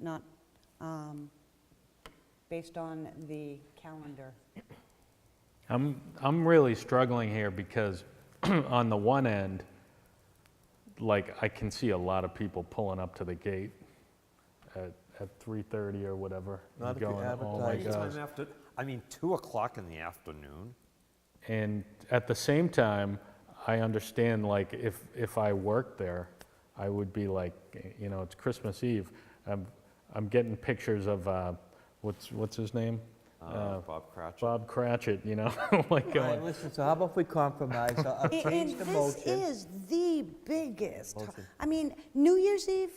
not um, based on the calendar. I'm, I'm really struggling here because on the one end, like I can see a lot of people pulling up to the gate at, at 3.30 or whatever. and Not if you going, oh my advertise it." gosh. Anytime after, I mean, 2 o'clock in the afternoon, And at the same time, I understand like if, if I worked there, I would be like, you know, it's Christmas Eve. I'm, I'm getting pictures of, uh, what's, what's his name? uh, Bob Cratchit. Bob Cratchit, you know, like All right, going, listen, so how about we compromise? I'll I'll A- change the And motion. this is the biggest, I mean, New Year's Eve,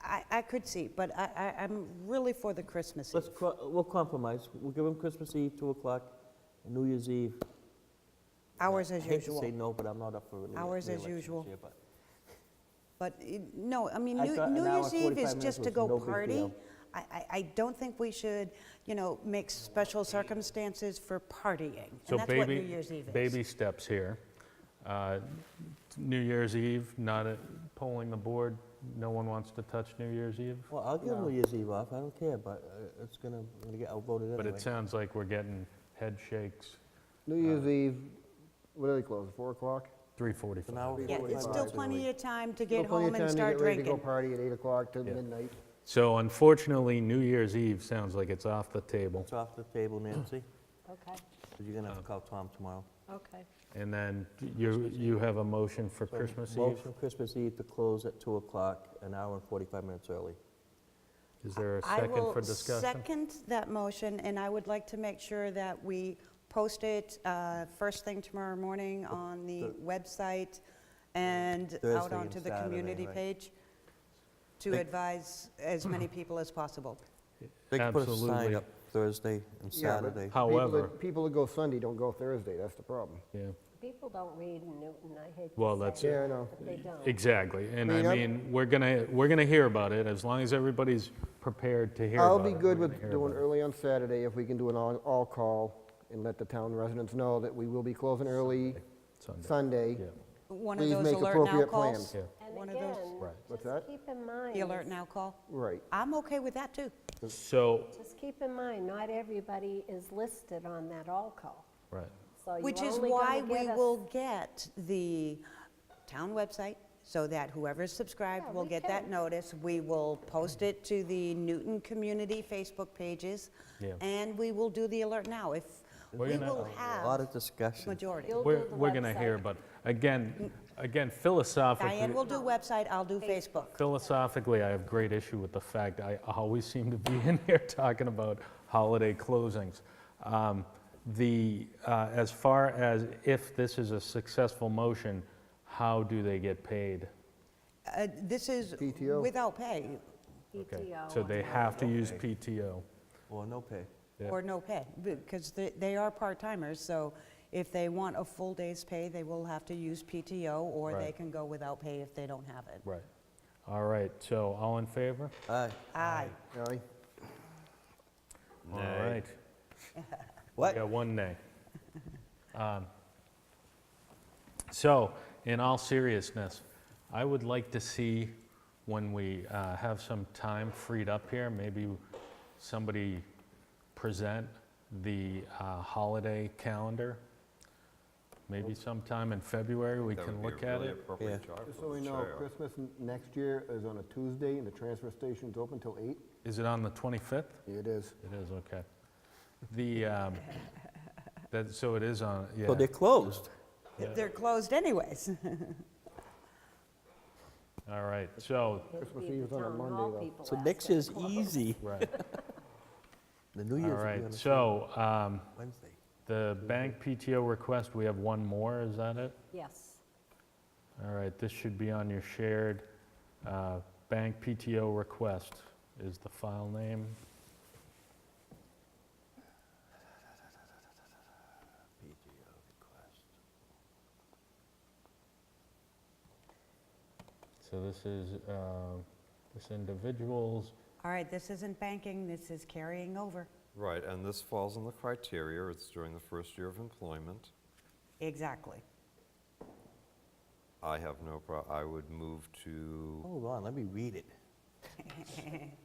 I, I I could see, but I, I- I'm really for the Christmas Eve. Let's, cro- we'll compromise. We'll give them Christmas Eve, 2 o'clock, and New Year's Eve. Hours as I hate to say usual. no, but I'm not up for rele- reelection. Hours as usual. this year, but- But, eh, no, I mean, I New thought an New hour, Year's Eve 45 is minutes just to was go no big party. deal. I, I, I don't think we should, you know, make special circumstances for partying. So And that's what New baby, Year's Eve is. baby steps here. Uh, New Year's Eve, not a- polling the board, no one wants to touch New Year's Eve. Well, I'll give New Year's Eve off, I don't care, but uh, it's gonna, I'm gonna get outvoted But anyway. it sounds like we're getting head shakes, New Year's Uh, Eve, what do they close, 4 o'clock? 3:45. An hour Yeah, it's still 45. plenty of time to get Still plenty home of time and to start get ready To go drinking. party at 8 o'clock to Yeah. midnight. So unfortunately, New Year's Eve sounds like it's off the table. It's off the table, Nancy, Okay, because you're Uh, gonna have to call Tom tomorrow. okay. And then you, you have a motion for Christmas Eve? Motion Christmas Eve to close at 2 o'clock, an hour and 45 minutes early. Is there a second I for will discussion? second that motion, and I would like to make sure that we post it uh, first thing tomorrow morning on the website and Thursday out and onto the Saturday, community right. page to Think- advise as many people as possible. They can put a sign Absolutely. up Thursday and Yeah, but Saturday. people that- However- People that go Sunday don't go Thursday, that's the problem. Yeah, People don't read in Newton, I hate to say Well, that's it, Yeah, I know. But they don't. exactly. And I Clean up. mean, we're gonna, we're gonna hear about it as long as everybody's prepared to hear I'll about it. be we're good gonna with hear doing about it. early on Saturday if we can do an all- all-call and let the town residents know that we will be closing early Sunday. Sunday. Yeah, One of Please those make alert now appropriate calls. plans. yeah. One And of those- again, Right. What's that? just keep in mind. The alert now call. Right. I'm okay with that, too. So, Just keep in mind, not everybody is listed on that all call. right, So you're Which is only gonna why we get a- will get the town website, so that whoever's subscribed Yeah, will we get that can. notice. We will post it to the Newton Community Facebook pages, Yeah. and we will do the alert now if, We're we gonna- will A have lot of discussion. majority. You'll we're, do the we're gonna hear website. about, it. again, again, philosophically. Diane will do website, I'll do Facebook. Philosophically, I have great issue with the fact I always seem to be in here talking about holiday closings. Um, The, uh, as far as if this is a successful motion, how do they get paid? Uh, This is PTO. without pay Okay, PTO So they and- have to use PTO. Or no pay. Yeah. or no pay, because they- they are part-timers, so if they want a full day's pay, they will have to use PTO, or they Right. can go without pay if they don't have it. Right. All right, so all in favor? Aye. Aye. Aye. All Nay. right. What? Yeah, one nay. Um, So, in all seriousness, I would like to see when we uh, have some time freed up here, maybe somebody present the uh, holiday calendar. Maybe sometime in February, we That would can be a look at really it. appropriate job Just for so the we know, chair. Christmas n- next year is on a Tuesday, and the transfer station's open till 8. Is it on the 25th? It is. It is, okay. The, um, that, so it is on, yeah. So they're closed. Yeah. They're closed anyways. All right, so, It'd Christmas be the Eve is on a town Monday, hall though. people So ask next it. year's easy. right, The New all Year's will be on right. a So, um, Wednesday. The bank PTO request, we have one more, is that it? Yes, All right, this should be on your shared. uh, Bank PTO request is the file name. So this is, uh, this individual's, All right, this isn't banking, this is carrying over. Right, and this falls on the criteria, it's during the first year of employment. Exactly. I have no prob, I would move to, Hold on, let me read it.